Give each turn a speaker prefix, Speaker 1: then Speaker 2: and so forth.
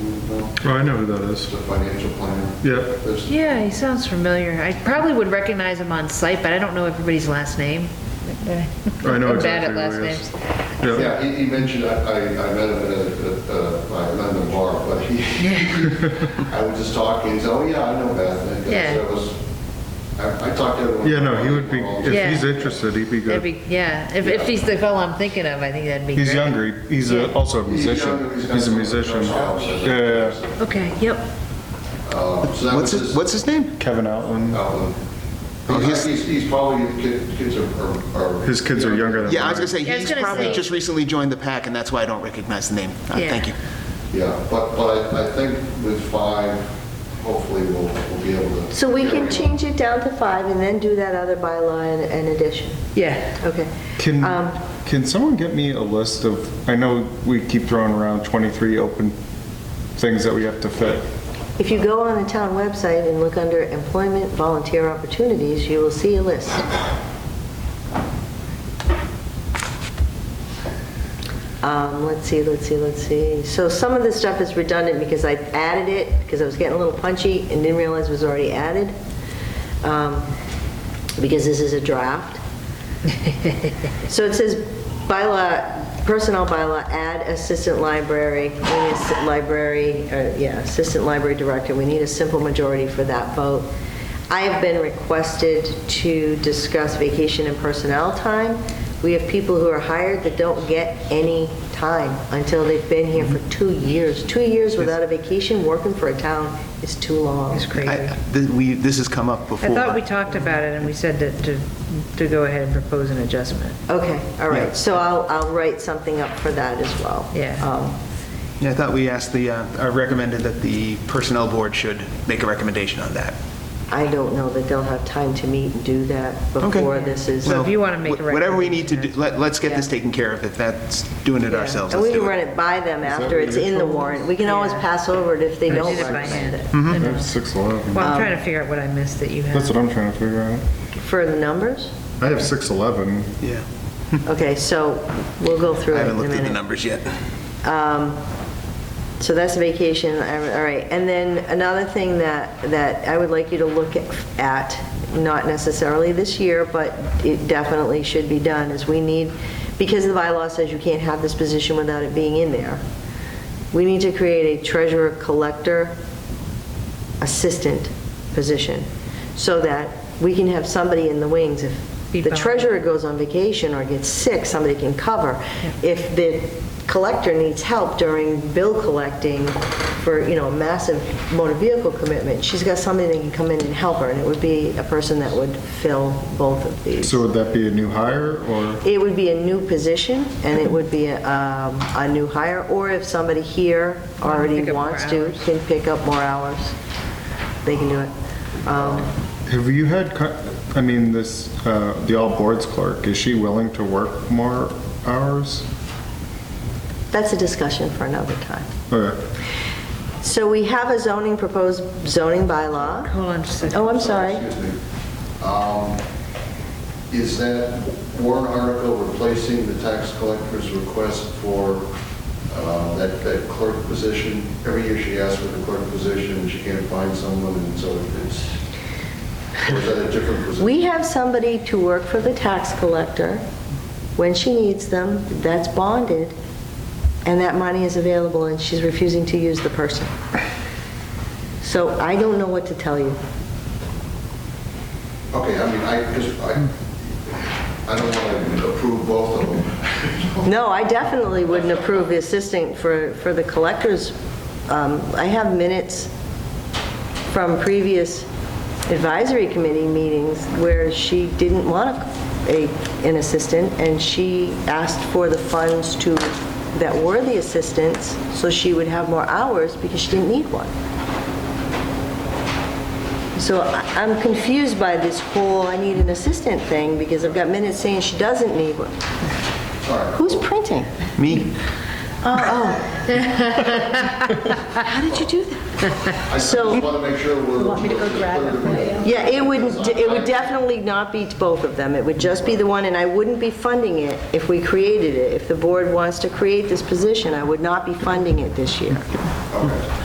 Speaker 1: Oh, I know who that is.
Speaker 2: the financial planner.
Speaker 1: Yeah,
Speaker 2: There's-
Speaker 3: Yeah, he sounds familiar. I probably would recognize him on sight, but I don't know everybody's last name.
Speaker 1: I know
Speaker 3: I'm bad
Speaker 1: exactly
Speaker 3: at
Speaker 1: who
Speaker 3: last
Speaker 1: he is.
Speaker 3: names.
Speaker 1: yeah.
Speaker 2: Yeah, he, he mentioned, I, I I met him at a, at a- I met him at a bar, but he, I was just talking, he said, oh yeah, I know Beth. And I
Speaker 3: Yeah.
Speaker 2: said, I was, I, I talked to everyone.
Speaker 1: Yeah, no, he would be,
Speaker 3: Yeah.
Speaker 1: if he's interested, he'd be
Speaker 3: That'd
Speaker 1: good.
Speaker 3: be, yeah, if, if he's the fellow I'm thinking of, I think that'd be great.
Speaker 1: He's younger, he- he's a- also a
Speaker 2: He's younger,
Speaker 1: musician.
Speaker 2: got
Speaker 1: He's a
Speaker 2: some
Speaker 1: musician.
Speaker 2: jobs.
Speaker 1: Yeah, yeah, yeah.
Speaker 3: Okay, yep.
Speaker 2: Um, So that was
Speaker 4: What's his,
Speaker 2: his.
Speaker 4: what's his name?
Speaker 1: Kevin Outland,
Speaker 2: outline.
Speaker 4: Oh, he's-
Speaker 2: He's, he's- he's probably, kid- kids are- are. are-
Speaker 1: his kids are younger than mine.
Speaker 4: Yeah, I was gonna say,
Speaker 3: Yeah, I was
Speaker 4: he's
Speaker 3: gonna
Speaker 4: probably
Speaker 3: say-
Speaker 4: just recently joined the pack, and that's why I don't recognize the name. Uh,
Speaker 3: Yeah.
Speaker 4: Thank you.
Speaker 2: Yeah, but, but I I think with five, hopefully we'll, we'll be able to.
Speaker 5: So we can change it down to five and then do that other bylaw in- in addition.
Speaker 3: Yeah.
Speaker 5: Okay.
Speaker 1: Can,
Speaker 5: Um,
Speaker 1: can someone get me a list of, I know we keep throwing around 23 open things that we have to fit.
Speaker 3: Mm-hmm.
Speaker 5: If you go on the town website and look under employment volunteer opportunities, you will see a list. Um, Let's see, let's see, let's see. So some of this stuff is redundant because I added it, because I was getting a little punchy and didn't realize it was already added, um, because this is a draft. So it says bylaw, personnel bylaw, add assistant library, we need assi- library, uh, yeah, assistant library director, we need a simple majority for that vote. I have been requested to discuss vacation and personnel time. We have people who are hired that don't get any time until they've been here for two years. Two years without a vacation, working for a town is too long.
Speaker 3: It's crazy.
Speaker 4: I-
Speaker 3: I
Speaker 4: th- We, this has come up before.
Speaker 3: thought we talked about it and we said that to, to go ahead and propose an adjustment.
Speaker 5: Okay, all right, so I'll, I'll write something up for that as well.
Speaker 3: Yeah.
Speaker 5: Um,
Speaker 4: Yeah, I thought we asked the, uh, I recommended that the Personnel Board should make a recommendation on that.
Speaker 5: I don't know that they'll have time to meet and do that
Speaker 4: Okay.
Speaker 5: before this is.
Speaker 3: So if you wanna
Speaker 4: Well,
Speaker 3: make a
Speaker 4: wh- Whatever we need to do,
Speaker 3: recommendation,
Speaker 4: let- let's get this
Speaker 5: Yeah.
Speaker 4: taken care of. If that's doing it ourselves,
Speaker 5: And we
Speaker 4: let's
Speaker 5: can
Speaker 4: do
Speaker 5: run
Speaker 4: it.
Speaker 5: it by them after
Speaker 1: what
Speaker 5: it's
Speaker 1: you're
Speaker 5: in the
Speaker 1: told?
Speaker 5: warrant. We can always
Speaker 3: Yeah.
Speaker 5: pass over it if they
Speaker 3: I
Speaker 5: don't
Speaker 3: did it by hand.
Speaker 5: recommend it.
Speaker 3: I know.
Speaker 1: That's 611.
Speaker 3: Well, I'm trying to figure out what I missed that you
Speaker 1: That's
Speaker 3: had.
Speaker 1: what I'm trying to figure out.
Speaker 5: For the numbers?
Speaker 1: I have 611.
Speaker 4: Yeah,
Speaker 5: Okay, so we'll go
Speaker 4: I
Speaker 5: through it in a
Speaker 4: haven't
Speaker 5: minute.
Speaker 4: looked at the numbers yet.
Speaker 5: Um, So that's vacation, I- all right. And then another thing that, that I would like you to look at, not necessarily this year, but it definitely should be done, is we need, because the bylaw says you can't have this position without it being in there, we need to create a treasurer collector assistant position, so that we can have somebody in the wings if
Speaker 3: Be
Speaker 5: the
Speaker 3: bound.
Speaker 5: treasurer goes on vacation or gets sick, somebody can cover. If the collector needs help during bill collecting for, you know, a massive motor vehicle commitment, she's got somebody that can come in and help her, and it would be a person that would fill both of these.
Speaker 1: So would that be a new hire or?
Speaker 5: It would be a new position, and it would be a, um, a new hire, or if somebody here already
Speaker 3: Pick up more
Speaker 5: wants to,
Speaker 3: hours.
Speaker 5: can pick up more hours, they can do it. Um,
Speaker 1: Have you had, co- I mean, this, uh, the all boards clerk, is she willing to work more hours?
Speaker 5: That's a discussion for another time.
Speaker 1: Okay.
Speaker 5: So we have a zoning, proposed zoning bylaw.
Speaker 3: Hold on just a second.
Speaker 5: Oh, I'm sorry.
Speaker 2: Excuse me. Um, Is that warrant article replacing the tax collector's request for uh, that that clerk position? Every year she asks for the clerk position, she can't find someone, and so it's, or is that a different position?
Speaker 5: We have somebody to work for the tax collector when she needs them, that's bonded, and that money is available, and she's refusing to use the person. So I don't know what to tell you.
Speaker 2: Okay, I mean, I just, I, I don't want to approve both of them.
Speaker 5: No, I definitely wouldn't approve the assistant for, for the collectors. Um, I have minutes from previous advisory committee meetings where she didn't want a, an assistant, and she asked for the funds to, that were the assistants, so she would have more hours because she didn't need one. So I- I'm confused by this whole, I need an assistant thing, because I've got minutes saying she doesn't need one.
Speaker 2: All right.
Speaker 5: Who's printing?
Speaker 4: Me?
Speaker 5: Oh, How did you do that?
Speaker 2: I just
Speaker 5: So-
Speaker 2: want to make sure we're. Want me to go grab it?
Speaker 5: Yeah, it wouldn't, it would definitely not be both of them. It would just be the one, and I wouldn't be funding it if we created it. If the board wants to create this position, I would not be funding it this year.
Speaker 2: Okay.